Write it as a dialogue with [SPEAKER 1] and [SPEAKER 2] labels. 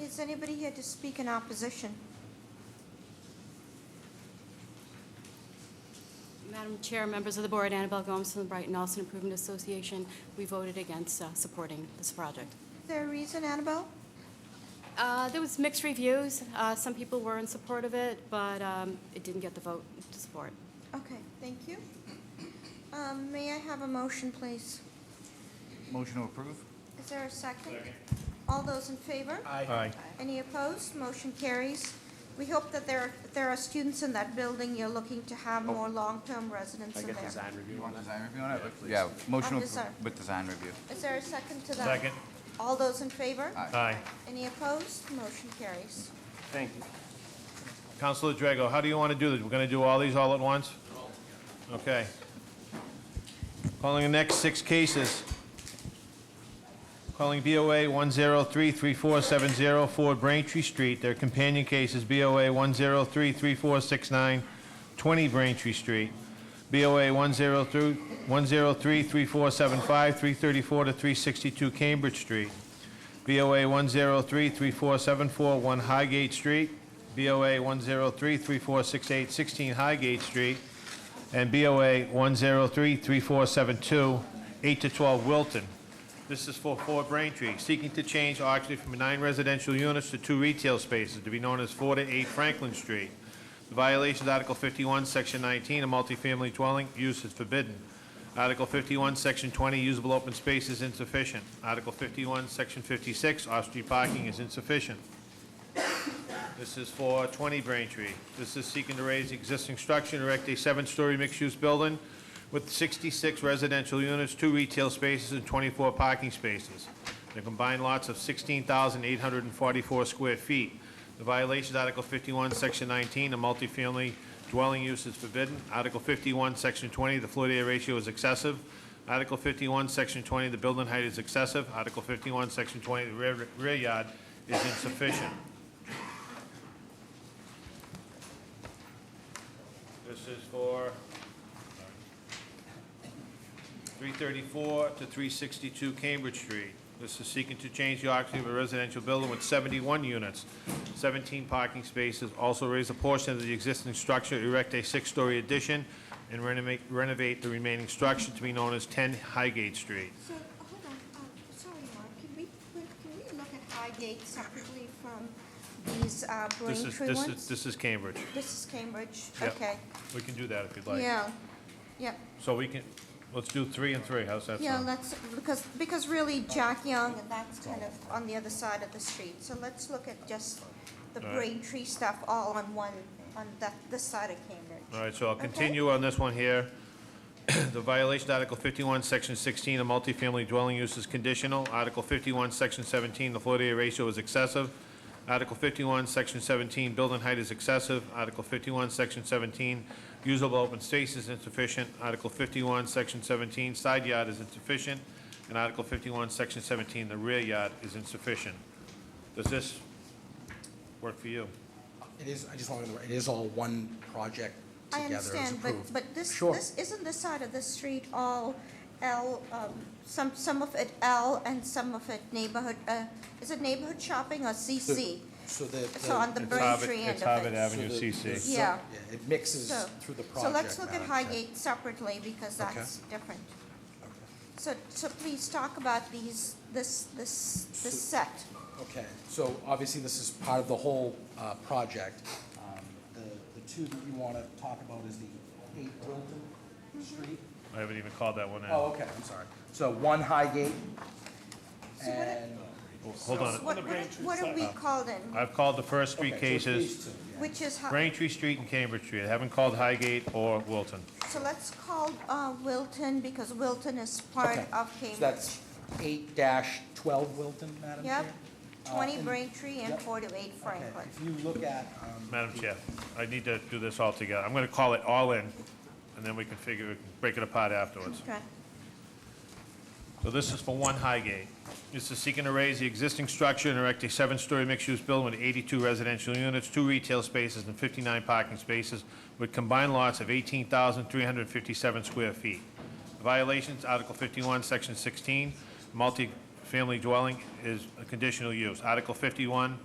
[SPEAKER 1] Is anybody here to speak in opposition?
[SPEAKER 2] Madam Chair, members of the board, Annabelle Gomes from the Brighton Austin Improvement Association, we voted against uh, supporting this project.
[SPEAKER 1] Is there a reason, Annabelle?
[SPEAKER 2] Uh, There was mixed reviews. Uh, Some people were in support of it, but um, it didn't get the vote to support.
[SPEAKER 1] Okay, thank you. Um, May I have a motion, please?
[SPEAKER 3] Motion to approve?
[SPEAKER 1] Is there a second? All those in favor?
[SPEAKER 3] Aye.
[SPEAKER 1] Any opposed? Motion carries. We hope that there, if there are students in that building. You're looking to have more long-term residents
[SPEAKER 4] I
[SPEAKER 1] in
[SPEAKER 4] get
[SPEAKER 1] there.
[SPEAKER 4] design review
[SPEAKER 3] You
[SPEAKER 4] on
[SPEAKER 3] want
[SPEAKER 4] that.
[SPEAKER 3] design review on it? Yeah, motion to
[SPEAKER 1] On design.
[SPEAKER 3] approve with design review.
[SPEAKER 1] Is there a second to that?
[SPEAKER 5] Second.
[SPEAKER 1] All those in favor?
[SPEAKER 5] Aye.
[SPEAKER 1] Any opposed? Motion carries.
[SPEAKER 4] Thank you.
[SPEAKER 5] Counselor Drago, how do you want to do this? We're going to do all these all at once? Okay. Calling the next six cases. Calling BOA 1033470 Ford Braintree Street. Their companion case is BOA 1033469 20 Braintree Street. BOA 1033475 334 to 362 Cambridge Street. BOA 103-3474-1 Highgate Street, BOA 103-3468-16 Highgate Street, and BOA 103-3472, 8 to 12 Wilton. This is for Fort Braintree, seeking to change Oxley from nine residential units to two retail spaces to be known as 4 to 8 Franklin Street. The violation is Article 51, Section 19, a multifamily dwelling, use is forbidden. Article 51, Section 20, usable open space is insufficient. Article 51, Section 56, off-street parking is insufficient. This is for 20 Braintree. This is seeking to raise the existing structure and erect a seven-story mixed-use building with 66 residential units, two retail spaces, and 24 parking spaces. The combined lots of 16,844 square feet. The violation is Article 51, Section 19, a multifamily dwelling use is forbidden. Article 51, Section 20, the floor-to-area ratio is excessive. Article 51, Section 20, the building height is excessive. Article 51, Section 20, the rear rear yard is insufficient. This is for 334 to 362 Cambridge Street. This is seeking to change the occupancy of a residential building with 71 units, 17 parking spaces, also raise a portion of the existing structure, erect a six-story addition, and renovate renovate the remaining structure to be known as 10 Highgate Street.
[SPEAKER 1] So, hold on, um, sorry, Mark, can we, can we look at Highgate separately from these uh,
[SPEAKER 5] This is
[SPEAKER 1] Braintree
[SPEAKER 5] This is,
[SPEAKER 1] ones?
[SPEAKER 5] this is Cambridge.
[SPEAKER 1] This is Cambridge,
[SPEAKER 5] Yep.
[SPEAKER 1] okay.
[SPEAKER 5] We can do that if you'd like.
[SPEAKER 1] Yeah, yep,
[SPEAKER 5] So we can, let's do three and three, how's that sound?
[SPEAKER 1] yeah, let's, because, because really Jack Young, and that's kind of on the other side of the street. So let's look at just the
[SPEAKER 5] All right.
[SPEAKER 1] Braintree stuff all on one, on that, this side of Cambridge.
[SPEAKER 5] All right, so I'll continue on this one here. The violation, Article 51, Section 16, a multifamily dwelling use is conditional. Article 51, Section 17, the floor-to-area ratio is excessive. Article 51, Section 17, building height is excessive. Article 51, Section 17, usable open space is insufficient. Article 51, Section 17, side yard is insufficient. And Article 51, Section 17, the rear yard is insufficient. Does this work for you?
[SPEAKER 6] It is, I just want to, it is all one project
[SPEAKER 1] I
[SPEAKER 6] together. It was
[SPEAKER 1] understand, but,
[SPEAKER 6] approved.
[SPEAKER 1] but this,
[SPEAKER 6] Sure.
[SPEAKER 1] this, isn't this side of the street all L, um, some, some of it L and some of it neighborhood, uh, is it neighborhood shopping or CC?
[SPEAKER 6] So the.
[SPEAKER 1] So on the
[SPEAKER 5] It's Harvard-
[SPEAKER 1] Braintree end
[SPEAKER 5] It's
[SPEAKER 1] of
[SPEAKER 5] Harvard
[SPEAKER 1] it.
[SPEAKER 5] Avenue,
[SPEAKER 6] so the-
[SPEAKER 5] CC.
[SPEAKER 6] the- so-
[SPEAKER 1] Yeah.
[SPEAKER 6] It mixes
[SPEAKER 1] So,
[SPEAKER 6] through the
[SPEAKER 1] so
[SPEAKER 6] project.
[SPEAKER 1] let's look at
[SPEAKER 6] Madam Chair.
[SPEAKER 1] Highgate separately because
[SPEAKER 6] Okay.
[SPEAKER 1] that's different. So, so please talk about these, this, this, this
[SPEAKER 6] So-
[SPEAKER 1] set.
[SPEAKER 6] Okay, so obviously this is part of the whole uh, project. Um, The, the two that you want to talk about is the eight Wilton
[SPEAKER 1] Mm-hmm.
[SPEAKER 6] Street.
[SPEAKER 5] I haven't even called that one out.
[SPEAKER 6] Oh, okay, I'm sorry. So one Highgate
[SPEAKER 1] So what it-
[SPEAKER 6] and.
[SPEAKER 5] Hold on.
[SPEAKER 1] What, what are- what are we called in?
[SPEAKER 5] I've called the first three
[SPEAKER 6] Okay, so it's these
[SPEAKER 5] cases,
[SPEAKER 6] two, yeah.
[SPEAKER 1] Which is, Hi-
[SPEAKER 5] Braintree Street and Cambridge Street. I haven't called Highgate or Wilton.
[SPEAKER 1] so let's call uh, Wilton because Wilton is part
[SPEAKER 6] Okay,
[SPEAKER 1] of
[SPEAKER 6] So
[SPEAKER 1] Cambridge.
[SPEAKER 6] that's eight dash twelve Wilton, Madam Chair?
[SPEAKER 1] Yep,
[SPEAKER 6] Uh,
[SPEAKER 1] twenty
[SPEAKER 6] and-
[SPEAKER 1] Braintree and
[SPEAKER 6] Yep.
[SPEAKER 1] four to eight
[SPEAKER 6] Okay,
[SPEAKER 1] Franklin.
[SPEAKER 6] If you look at, um,
[SPEAKER 5] Madam Chair, I need to do this all together. I'm going to call it all in, and then we can figure, break it apart afterwards.
[SPEAKER 1] Okay.
[SPEAKER 5] So this is for One Highgate. This is seeking to raise the existing structure and erect a seven-story mixed-use building with 82 residential units, two retail spaces, and 59 parking spaces with combined lots of 18,357 square feet. Violations, Article 51, Section 16, multifamily dwelling is a conditional use. Article 51,